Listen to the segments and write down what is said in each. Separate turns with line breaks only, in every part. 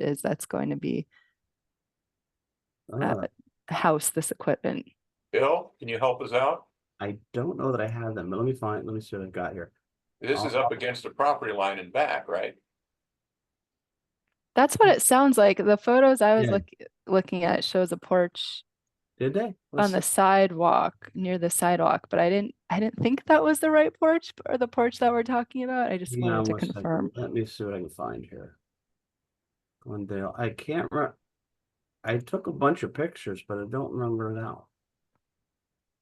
is that's going to be
Ah, Oh,
uh, house this equipment.
Bill, can you help us out?
I don't know that I have them, but let me find, let me see what I've got here.
This is up against the property line and back, right?
That's what it sounds like. The photos I was
Mm. Yeah.
look, looking at shows a porch
Did they?
on
Let's-
the sidewalk near the sidewalk, but I didn't I didn't think that was the right porch or the porch that we're talking about. I just
hang on
wanted to
one second.
confirm.
Let me see what I can find here. Glendale, I can't re- I took a bunch of pictures, but I don't remember now.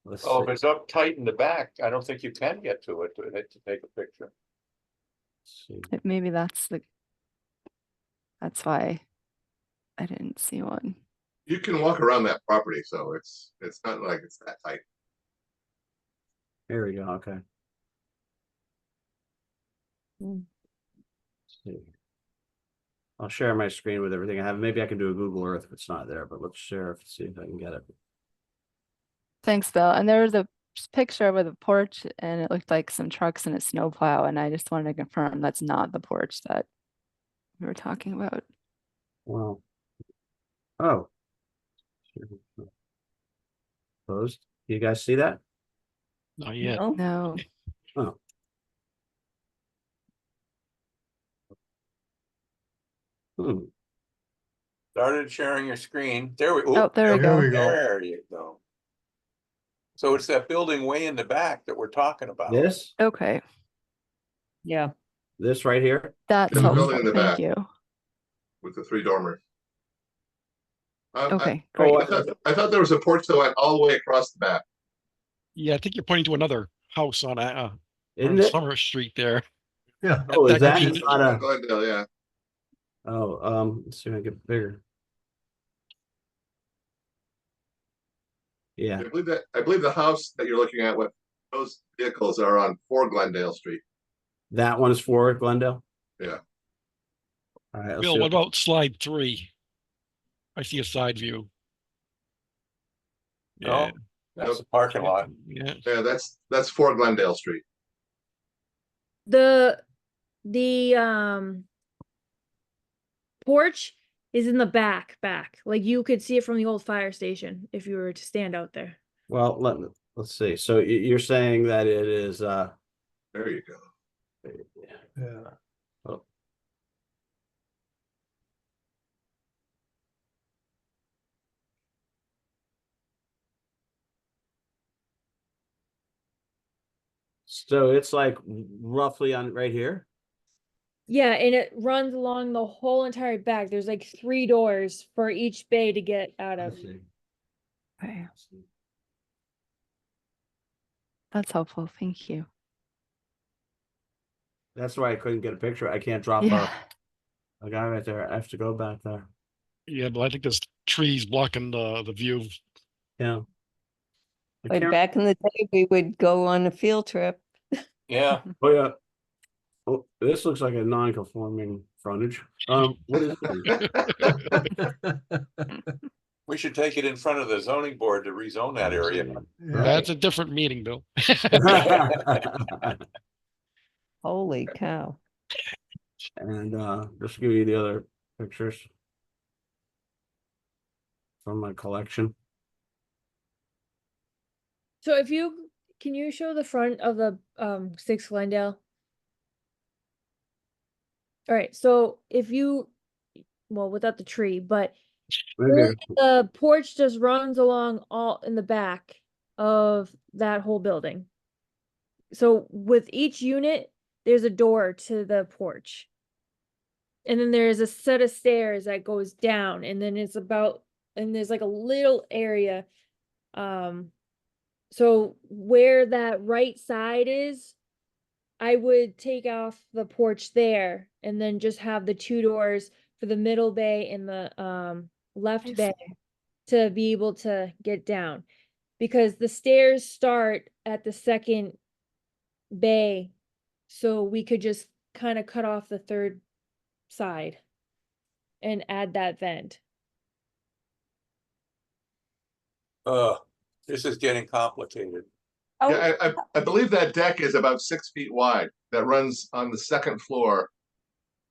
Let's
Oh, if
see,
it's up tight in the back, I don't think you can get to it to to take a picture.
see.
It- Maybe that's the that's why I didn't see one.
You can walk around that property, so it's, it's not like it's that tight.
Here we go, okay.
Mm.
Let's see. I'll share my screen with everything I have. Maybe I can do a Google Earth if it's not there, but let's share, if see if I can get it.
Thanks, Bill. And there was a s- picture with a porch and it looked like some trucks and a snowplow. And I just wanted to confirm that's not the porch that we were talking about.
Wow. Oh. Closed. You guys see that?
Not
Mm-hmm.
yet.
Oh,
No.
Hmm.
Started sharing your screen. There we.
Oh,
oop,
there we go.
we go.
There you go. So it's that building way in the back that we're talking about.
This,
Okay.
Yeah,
this right here?
That's
the building
helpful.
in the
Thank
back.
you.
with the three dormers. Um, I- I-
Okay,
Oh,
great.
I thought, I thought there was a porch that went all the way across the back.
Yeah, I think you're pointing to another house on, uh, uh,
Isn't
on
it?
Summer Street there.
Yeah.
Oh, is
that
that
could
it's
be-
not a,
Glendale, yeah.
oh, um, let's see if I can get bigger. Yeah,
I believe that, I believe the house that you're looking at, what, those vehicles are on four Glendale Street.
that one's for Glendale?
Yeah.
All right, let's
Bill,
see.
what
what-
about slide three? I see a side view.
Oh,
No, that's the parking lot.
Yeah,
Yeah, that's, that's four Glendale Street.
The, the, um, porch is in the back, back. Like you could see it from the old fire station if you were to stand out there.
Well, let, me- let's see. So y- you're saying that it is, uh,
There you go.
Yeah.
so it's like roughly on right here?
Yeah, and it runs along the whole entire back. There's like three doors for each bay to get out
I
of.
see.
Okay. That's helpful. Thank you.
That's why I couldn't get a picture. I can't drop
Yeah.
a, a guy right there. I have to go back there.
yeah, but I think there's trees blocking the, the view.
Yeah. I
Like
can't-
back in the day, we would go on a field trip.
Yeah,
Oh, yeah. Oh, this looks like a non-conforming frontage. Um, what is this?
we should take it in front of the zoning board to rezone that area.
That's a different meeting, Bill.
Holy cow.
And, uh, just give you the other pictures. From my collection.
So if you, can you show the front of the, um, Six Glendale? All right, so if you, well, without the tree, but
Maybe-
the porch just runs along all in the back of that whole building. So with each unit, there's a door to the porch. And then there is a set of stairs that goes down and then it's about, and there's like a little area. Um, so where that right side is, I would take off the porch there and then just have the two doors for the middle bay and the, um,
I
left
see.
bay to be able to get down. Because the stairs start at the second bay, so we could just kind of cut off the third side and add that vent.
Uh, this is getting complicated.
Yeah, I, I, I believe that deck is about six feet wide that runs on the second floor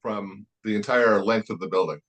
from the entire length of the building.